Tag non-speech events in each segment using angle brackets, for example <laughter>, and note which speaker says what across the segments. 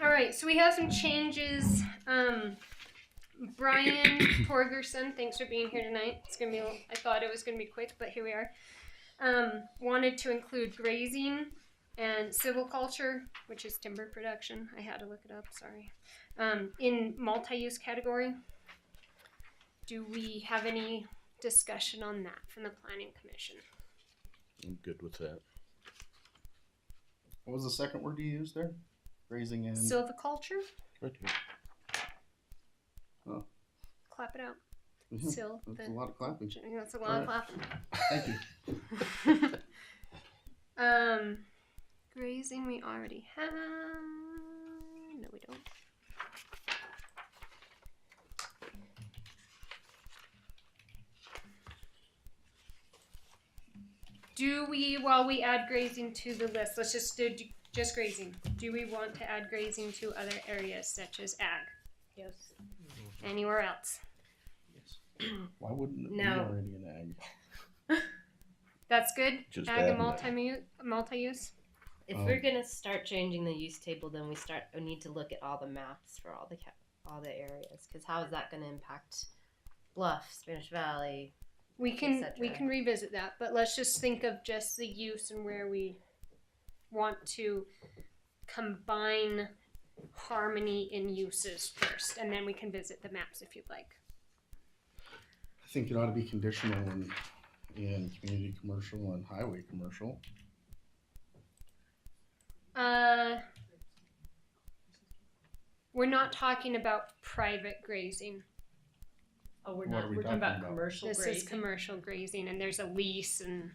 Speaker 1: right, so we have some changes. Um,
Speaker 2: <coughs>
Speaker 1: Brian Torgerson, thanks for being here tonight. It's gonna be. I thought it was gonna be quick, but here we are. Um, wanted to include grazing and silviculture, which is timber production. I had to look it up. Sorry. Um, in multi-use category. Do we have any discussion on that from the planning commission?
Speaker 3: I'm good with that.
Speaker 2: What was the second word you used there? Grazing and
Speaker 1: Silviculture.
Speaker 3: Right here.
Speaker 1: Clap it out.
Speaker 2: Mhm.
Speaker 1: Sil.
Speaker 2: That's a
Speaker 1: the-
Speaker 2: lot of clapping.
Speaker 1: That's a lot of
Speaker 2: Alright.
Speaker 1: clapping.
Speaker 2: Thank you.
Speaker 1: <laughs> um, grazing we already have. No, we don't. Do we, while we add grazing to the list, let's just do do- just grazing. Do we want to add grazing to other areas such as ag?
Speaker 4: Yes.
Speaker 1: Anywhere else?
Speaker 2: Why wouldn't it be
Speaker 1: No.
Speaker 2: already an ag?
Speaker 1: That's good.
Speaker 3: Just
Speaker 1: ag
Speaker 3: adding
Speaker 1: and
Speaker 3: that.
Speaker 1: multi multi use.
Speaker 4: If
Speaker 2: Um,
Speaker 4: we're gonna start changing the use table, then we start we need to look at all the maps for all the ca- all the areas because how is that gonna impact Bluff, Spanish Valley?
Speaker 1: We can we
Speaker 4: cetera.
Speaker 1: can revisit that, but let's just think of just the use and where we want to combine harmony in uses first, and then we can visit the maps if you'd like.
Speaker 2: I think it ought to be conditional in, in community commercial and highway commercial.
Speaker 1: Uh, we're not talking about private grazing.
Speaker 5: Oh, we're
Speaker 2: What are
Speaker 5: not.
Speaker 2: we
Speaker 5: We're talking about,
Speaker 2: talking about?
Speaker 5: commercial
Speaker 1: This
Speaker 5: grades.
Speaker 1: is commercial grazing, and there's a lease, and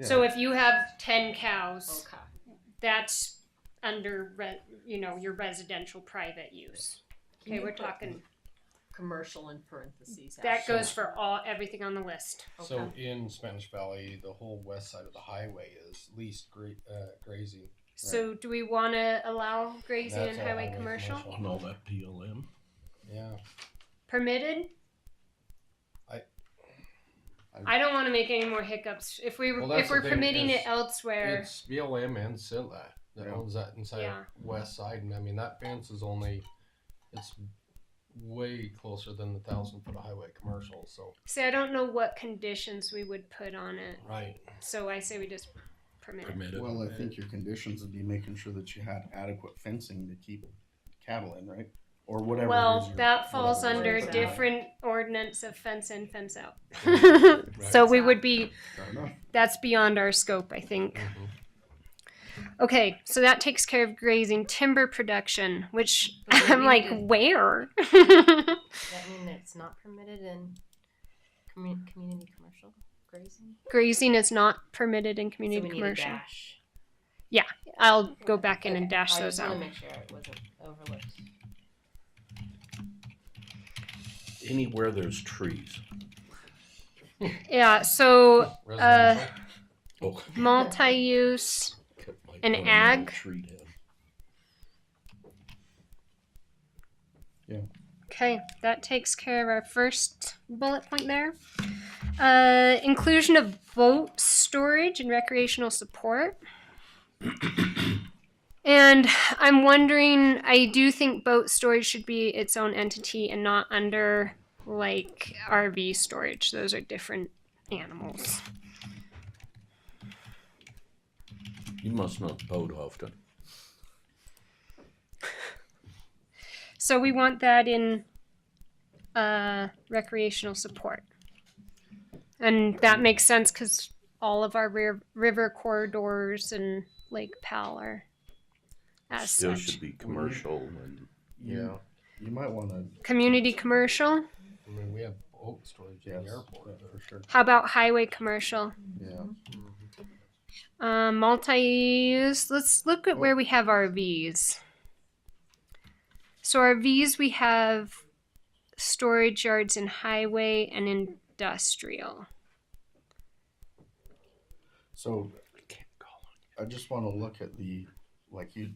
Speaker 1: so if you have ten cows,
Speaker 5: Okay.
Speaker 1: that's under re- you know your residential private use.
Speaker 5: Can
Speaker 1: Okay,
Speaker 5: you
Speaker 1: we're
Speaker 5: put
Speaker 1: talking.
Speaker 5: commercial in parentheses.
Speaker 1: That
Speaker 5: after
Speaker 1: goes for all everything on the list.
Speaker 6: So in Spanish Valley, the whole west side of the highway is leased gra- uh, grazing.
Speaker 1: So do we want to allow grazing
Speaker 6: That's
Speaker 1: and
Speaker 6: all
Speaker 1: highway commercial?
Speaker 3: On all that PLM.
Speaker 6: Yeah,
Speaker 1: permitted?
Speaker 6: I-
Speaker 1: I don't want to make any more hiccups. If we
Speaker 6: Well, that's
Speaker 1: if
Speaker 6: the
Speaker 1: we're
Speaker 6: thing
Speaker 1: permitting it
Speaker 6: is-
Speaker 1: elsewhere,
Speaker 6: it's BLM and Silla that
Speaker 2: Yeah.
Speaker 6: owns that inside
Speaker 1: Yeah.
Speaker 6: west side, and I mean that fence is only it's way closer than the thousand foot of highway commercial. So
Speaker 1: see, I don't know what conditions we would put on it.
Speaker 6: right,
Speaker 1: So I say we just permit. it.
Speaker 3: Permitted.
Speaker 2: Well, I think your conditions would be making sure that you had adequate fencing to keep cattle in, right? Or whatever. it is
Speaker 1: Well,
Speaker 2: you're-
Speaker 1: that falls
Speaker 2: whatever it
Speaker 1: under
Speaker 2: is.
Speaker 4: Fence out.
Speaker 1: different ordinance of fence in, fence out. So we would be
Speaker 2: Fair enough.
Speaker 1: that's beyond our scope, I think.
Speaker 4: Mm-hmm.
Speaker 1: Okay, so that takes care of grazing timber production, which
Speaker 4: But we
Speaker 1: I'm
Speaker 4: need
Speaker 1: like,
Speaker 4: to-
Speaker 1: where? <laughs>
Speaker 4: Does that mean that it's not permitted in commu- community commercial grazing?
Speaker 1: grazing is not permitted in
Speaker 4: So
Speaker 1: community
Speaker 4: we
Speaker 1: commercial.
Speaker 4: need a dash.
Speaker 1: I'll go back in and
Speaker 4: Okay,
Speaker 1: dash
Speaker 4: I
Speaker 1: those
Speaker 4: just wanna
Speaker 1: out.
Speaker 4: Make sure it wasn't overlooked.
Speaker 3: Anywhere there's trees.
Speaker 1: Yeah, so
Speaker 6: Residential.
Speaker 3: Oh,
Speaker 1: multi use,
Speaker 3: cut my
Speaker 1: An
Speaker 3: damn
Speaker 1: ag?
Speaker 3: Tree down.
Speaker 1: okay, that takes care of our first bullet point there. Uh, inclusion of boat storage and recreational support. And I'm wondering, I do think boat storage should be its own entity and not under like RV storage. Those are different animals.
Speaker 3: You must not boat often.
Speaker 1: So we want that in uh, recreational support. And that makes sense because all of our ri- river corridors and Lake Powell are as
Speaker 3: Still
Speaker 1: such.
Speaker 3: should be commercial and
Speaker 6: Yeah,
Speaker 2: You might wanna,
Speaker 1: Community commercial.
Speaker 6: I mean we have boat storage in
Speaker 2: yes,
Speaker 6: the airport.
Speaker 2: yeah, for sure,
Speaker 1: How about highway commercial?
Speaker 2: yeah.
Speaker 1: Um, multi-use. Let's look at where we have RVs. So RVs, we have storage yards in highway and industrial.
Speaker 2: So I just want to look at the like you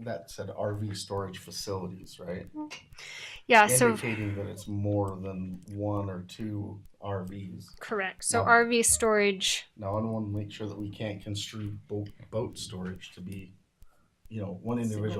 Speaker 2: that said RV storage facilities, right?
Speaker 1: Yeah. So
Speaker 2: Indicating that it's more than one or two RVs.
Speaker 1: Correct. So
Speaker 2: No.
Speaker 1: RV storage.
Speaker 2: Now I want to make sure that we can't construe boat boat storage to be, you know, one individual